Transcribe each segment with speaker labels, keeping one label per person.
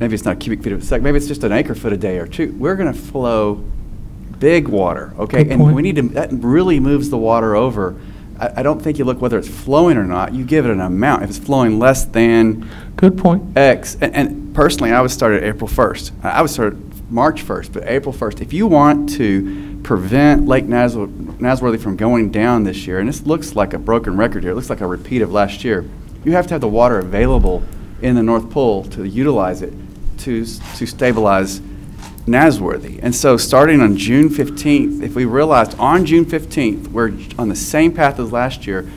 Speaker 1: maybe it's not cubic feet of a second, maybe it's just an acre foot a day or two. We're going to flow big water, okay?
Speaker 2: Good
Speaker 1: And we
Speaker 2: point.
Speaker 1: need to, that really moves the water over. I, I don't think you look whether it's flowing or not, you give it an amount. If it's flowing less than
Speaker 2: Good point.
Speaker 1: X, and, and personally, I would start at April 1st. I I would start March 1st, but April 1st. If you want to prevent Lake Nasw- Nasworthy from going down this year, and this looks like a broken record here, it looks like a repeat of last year, you have to have the water available in the North Pole to utilize it to, s- to stabilize Nasworthy. And so, starting on June 15th, if we realized on June 15th, we're j- on the same path as last year,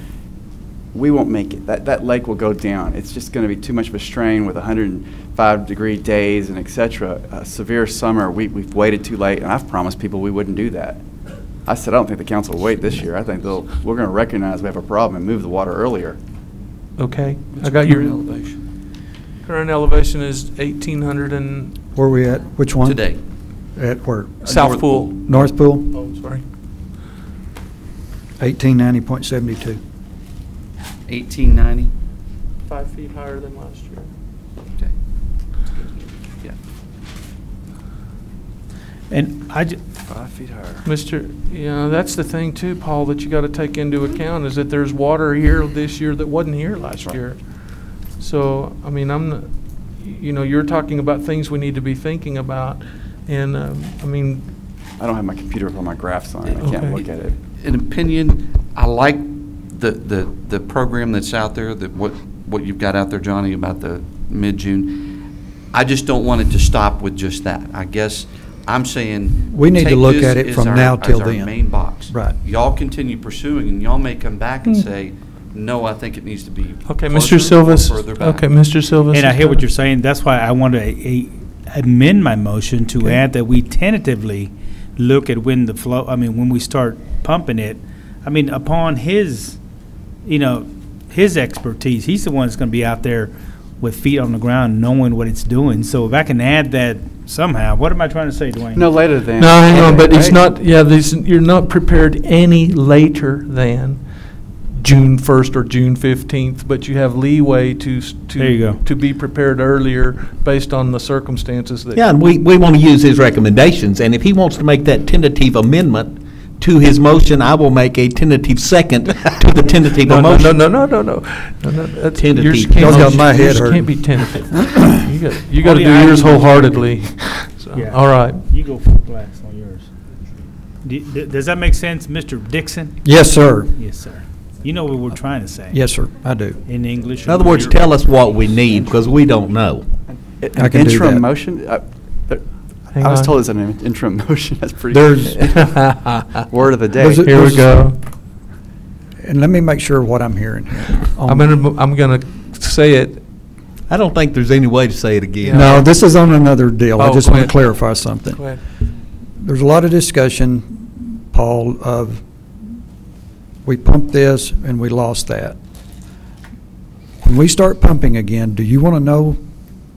Speaker 1: we won't make it. That, that lake will go down. It's just going to be too much of a strain with 105 degree days and et cetera. A severe summer, we, we've waited too late, and I've promised people we wouldn't do that. I said, I don't think the council will wait this year. I think they'll, we're going to recognize we have a problem and move the water earlier.
Speaker 2: Okay, I got your,
Speaker 3: elevation?
Speaker 2: current elevation is 1,800 and,
Speaker 4: Where we at? Which one?
Speaker 3: Today.
Speaker 4: At where?
Speaker 2: South
Speaker 3: North
Speaker 2: Pool.
Speaker 4: North Pool,
Speaker 2: Oh, sorry.
Speaker 4: 1890.72.
Speaker 3: 1890?
Speaker 2: Five feet higher than last year.
Speaker 3: Okay. Yeah.
Speaker 5: And I, ju-
Speaker 1: Five feet higher.
Speaker 2: Mr., yeah, that's the thing too, Paul, that you got to take into account is that there's water here this year that wasn't here last
Speaker 1: right.
Speaker 2: year. So, I mean, I'm, not- you know, you're talking about things we need to be thinking about. And, um, I mean,
Speaker 1: I don't have my computer with all my graphs on it. I
Speaker 2: Okay.
Speaker 1: can't look at it.
Speaker 3: An opinion, I like the, the, the program that's out there, that what, what you've got out there, Johnny, about the mid-June. I just don't want it to stop with just that. I guess I'm saying.
Speaker 4: We need to
Speaker 3: take
Speaker 4: look
Speaker 3: this
Speaker 4: at it
Speaker 3: as
Speaker 4: from
Speaker 3: our-
Speaker 4: now
Speaker 3: as
Speaker 4: till
Speaker 3: our
Speaker 4: then.
Speaker 3: main box.
Speaker 4: Right.
Speaker 3: Y'all continue pursuing, and y'all may come back and say, no, I think it needs to be.
Speaker 2: Hmm. okay,
Speaker 3: closer or
Speaker 2: Mr. Silvas,
Speaker 3: further back."
Speaker 2: okay, Mr. Silvas.
Speaker 5: and I
Speaker 2: is
Speaker 5: hear what
Speaker 2: done.
Speaker 5: you're saying, that's why I want to eh, amend my motion to add that we tentatively look at when the flow, I mean, when we start pumping it. I mean, upon his, you know, his expertise, he's the one that's going to be out there with feet on the ground, knowing what it's doing. So if I can add that somehow, what am I trying to say, Dwayne?
Speaker 1: No later than.
Speaker 2: No, hang on, but it's
Speaker 1: Right?
Speaker 2: not, yeah, this, you're not prepared any later than June first or June fifteenth, but you have leeway to, s- to.
Speaker 5: There you go.
Speaker 2: To be prepared earlier based on the circumstances that.
Speaker 6: Yeah, and we, we want to use his recommendations, and if he wants to make that tentative amendment to his motion, I will make a tentative second to the tentative
Speaker 2: No, no, no,
Speaker 6: motion.
Speaker 2: no, no, no, no, no, no. that's-
Speaker 6: Tentative.
Speaker 2: yours can't
Speaker 4: Y'all
Speaker 2: be-
Speaker 4: got my head
Speaker 2: yours
Speaker 4: hurting.
Speaker 2: Can't be tentative. You gotta, you gotta do
Speaker 5: yeah, I
Speaker 2: yours
Speaker 5: can-
Speaker 2: wholeheartedly. So,
Speaker 5: Yeah.
Speaker 2: Um, All right.
Speaker 5: You go full blast on yours. Do- do- Does that make sense, Mr. Dixon?
Speaker 4: Yes, sir.
Speaker 5: Yes, sir. You know what we're trying to say?
Speaker 4: Yes, sir, I do.
Speaker 5: In English?
Speaker 6: In other words, tell us what we need, because we don't know.
Speaker 1: An
Speaker 4: I can do
Speaker 1: interim
Speaker 4: that.
Speaker 1: motion? I, there-
Speaker 2: Hang
Speaker 1: I was
Speaker 2: on.
Speaker 1: told it's an interim motion. That's pretty.
Speaker 4: There's-
Speaker 1: Word of the day.
Speaker 4: There's a-
Speaker 2: Here we go.
Speaker 4: And let me make sure what I'm hearing. here.
Speaker 2: I'm gonna, mo- I'm gonna say it.
Speaker 6: I don't think there's any way to say it again.
Speaker 4: No, this is on another deal. I
Speaker 2: Oh,
Speaker 4: just
Speaker 2: go
Speaker 4: want to
Speaker 2: ahead.
Speaker 4: clarify something.
Speaker 2: Go ahead.
Speaker 4: There's a lot of discussion, Paul, of we pumped this and we lost that. When we start pumping again, do you want to know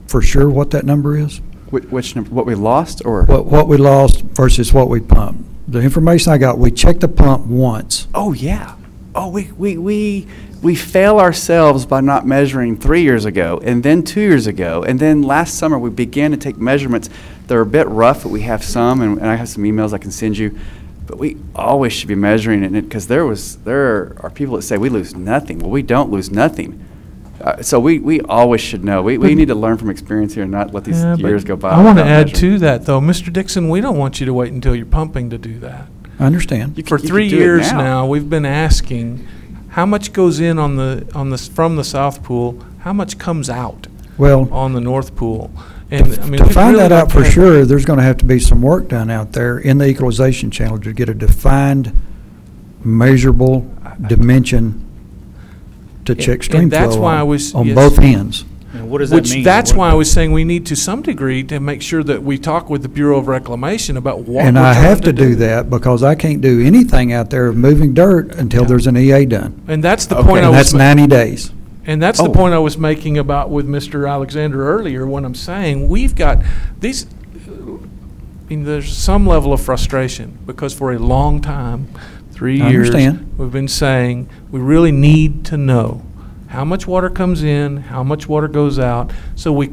Speaker 4: for sure what that number is?
Speaker 1: Which, which number, what we lost or?
Speaker 4: What, what we lost versus what we pumped? The information I got, we checked the pump once.
Speaker 1: Oh yeah. Oh, we we we we fail ourselves by not measuring three years ago, and then two years ago, and then last summer we began to take measurements. They're a bit rough, but we have some, and, and I have some emails I can send you. But we always should be measuring it because there was there are people that say we lose nothing. Well, we don't lose nothing. Uh, so we, we always should know. We, we
Speaker 2: But-
Speaker 1: need to learn from experience here and not let these
Speaker 2: Yeah, but
Speaker 1: years go by.
Speaker 2: I want to
Speaker 1: without
Speaker 2: add
Speaker 1: measuring.
Speaker 2: to that, though. Mr. Dixon, we don't want you to wait until you're pumping to do that.
Speaker 4: I understand.
Speaker 1: You c-
Speaker 2: For
Speaker 1: you could
Speaker 2: three
Speaker 1: do it
Speaker 2: years
Speaker 1: now.
Speaker 2: now, we've been asking, how much goes in on the, on the, s- from the South Pool? How much comes out
Speaker 4: Well,
Speaker 2: on the North Pool? And, I mean,
Speaker 4: to
Speaker 2: we'd
Speaker 4: find
Speaker 2: really
Speaker 4: that
Speaker 2: like
Speaker 4: out
Speaker 2: to
Speaker 4: for
Speaker 2: have-
Speaker 4: sure, there's going to have to be some work done out there in the equalization channel to get a defined, measurable dimension to check
Speaker 2: And-
Speaker 4: stream
Speaker 2: and that's
Speaker 4: flow
Speaker 2: why I
Speaker 4: on-
Speaker 2: was-
Speaker 4: on
Speaker 2: yes.
Speaker 4: both ends.
Speaker 5: And what does that
Speaker 2: Which,
Speaker 5: mean?
Speaker 2: that's
Speaker 5: What-
Speaker 2: why I was saying we need to some degree to make sure that we talk with the Bureau of Reclamation about what
Speaker 4: And
Speaker 2: we're
Speaker 4: I
Speaker 2: trying
Speaker 4: have to do that because I can't do anything out there of moving dirt until there's an EA done.
Speaker 2: And that's the
Speaker 1: Okay,
Speaker 2: point I
Speaker 4: And
Speaker 2: was.
Speaker 4: that's
Speaker 2: ma-
Speaker 4: 90 days.
Speaker 2: And that's the
Speaker 1: Oh.
Speaker 2: point I was making about with Mr. Alexander earlier, when I'm saying we've got these, I mean, there's some level of frustration because for a long time, three
Speaker 4: I
Speaker 2: years,
Speaker 4: understand.
Speaker 2: we've been saying we really need to know how much water comes in, how much water goes out, so we